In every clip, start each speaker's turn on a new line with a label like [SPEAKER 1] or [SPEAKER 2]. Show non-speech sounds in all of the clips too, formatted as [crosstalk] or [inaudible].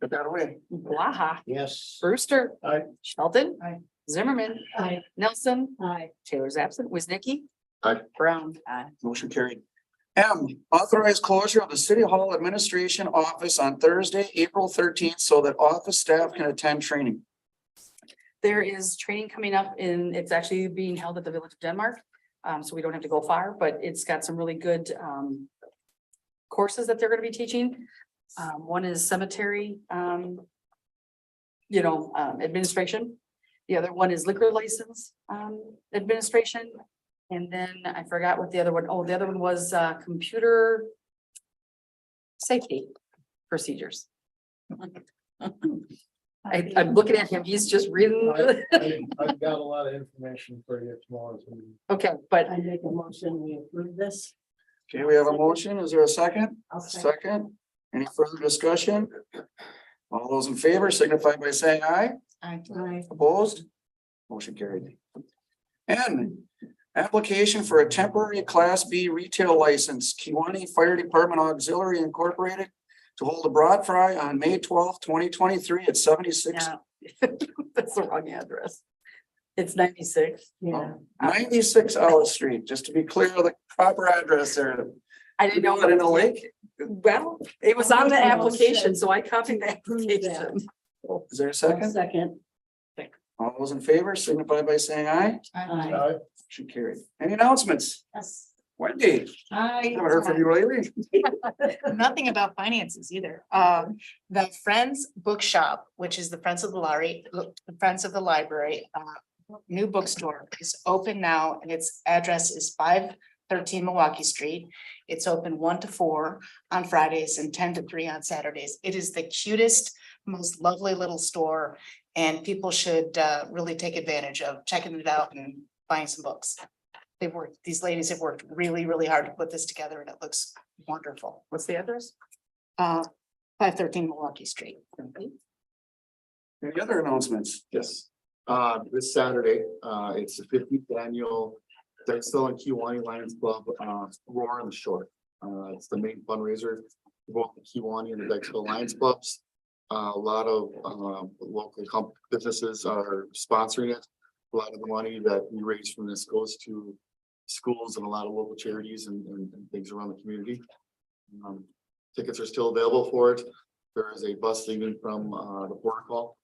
[SPEAKER 1] Put that away.
[SPEAKER 2] Blaha,
[SPEAKER 1] Yes.
[SPEAKER 2] Brewster.
[SPEAKER 1] Aye.
[SPEAKER 2] Shelton.
[SPEAKER 3] Aye.
[SPEAKER 2] Zimmerman.
[SPEAKER 3] Aye.
[SPEAKER 2] Nelson.
[SPEAKER 3] Aye.
[SPEAKER 2] Taylor's absent. Wiznicki.
[SPEAKER 1] Aye.
[SPEAKER 2] Brown. Aye.
[SPEAKER 1] Motion carried. M, authorize closure of the City Hall Administration Office on Thursday, April thirteenth, so that office staff can attend training.
[SPEAKER 2] There is training coming up in, it's actually being held at the Village of Denmark. Um, so we don't have to go far, but it's got some really good, um, courses that they're gonna be teaching. Um, one is cemetery, um, you know, um, administration. The other one is liquor license, um, administration. And then I forgot what the other one, oh, the other one was, uh, computer safety procedures. [laughs] I, I'm looking at him, he's just reading.
[SPEAKER 4] I've got a lot of information for you tomorrow.
[SPEAKER 2] Okay, but
[SPEAKER 3] I make a motion, we approve this.
[SPEAKER 1] Okay, we have a motion. Is there a second?
[SPEAKER 3] I'll second.
[SPEAKER 1] Second. Any further discussion? All those in favor signify by saying aye.
[SPEAKER 2] [laughs]
[SPEAKER 3] Aye.
[SPEAKER 1] Opposed? Motion carried. N, application for a temporary Class B retail license, Kiwanee Fire Department Auxiliary Incorporated to hold a broad fry on May twelfth, twenty twenty-three at seventy-six,
[SPEAKER 2] No, That's the wrong address. It's ninety-six.
[SPEAKER 3] Yeah.
[SPEAKER 1] ninety-six Ellis Street, just to be clear, the proper address there.
[SPEAKER 2] I didn't know.
[SPEAKER 1] Is it in a lake?
[SPEAKER 2] Well, it was on the
[SPEAKER 3] Well,
[SPEAKER 2] application,
[SPEAKER 3] shit.
[SPEAKER 2] so I copied the
[SPEAKER 3] Prove that.
[SPEAKER 2] application.
[SPEAKER 1] Is there a
[SPEAKER 3] I'll
[SPEAKER 1] second?
[SPEAKER 3] Second.
[SPEAKER 1] All those in favor signify by saying aye.
[SPEAKER 3] Aye.
[SPEAKER 1] Motion carried. Any announcements?
[SPEAKER 3] Yes.
[SPEAKER 1] Wendy,
[SPEAKER 5] I,
[SPEAKER 1] haven't heard from you lately.
[SPEAKER 5] nothing about finances either. Um, the Friends Bookshop, which is the Friends of the Library, the Friends of the Library, uh, new bookstore is open now and its address is five thirteen Milwaukee Street. It's open one to four on Fridays and ten to three on Saturdays. It is the cutest, most lovely little store. And people should, uh, really take advantage of checking it out and buying some books. They've worked, these ladies have worked really, really hard to put this together and it looks wonderful
[SPEAKER 2] What's the address?
[SPEAKER 5] uh, five thirteen Milwaukee Street.
[SPEAKER 1] Any other announcements?
[SPEAKER 4] Yes, uh, this Saturday, uh, it's the fiftieth annual Dexel and Kiwanee Lions Club, uh, Roar on the Shore. Uh, it's the main fundraiser, for both the Kiwanee and the Dexel Lions Clubs. Uh, a lot of, um, local comp- businesses are sponsoring it. A lot of the money that we raise from this goes to schools and a lot of local charities and, and and things around the community. Um, Tickets are still available for it. There is a bus leaving from, uh, the Port Hall.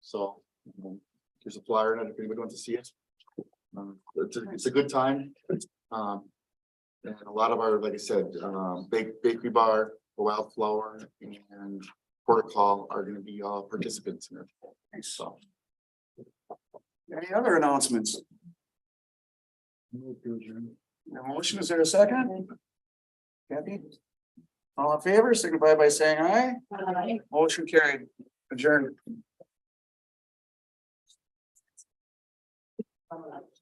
[SPEAKER 4] So um, There's a flyer and if anybody wants to see it. Um, It's, a- it's a good time. Um, And a lot of our, like I said, um, bake, bakery bar, wildflower and Porter Call are gonna be all participants in it. So.
[SPEAKER 1] Any other announcements? The motion, is there a second? Kathy? All in favor, signify by saying aye.
[SPEAKER 3] Aye.
[SPEAKER 1] Motion carried, adjourned.
[SPEAKER 3] All right.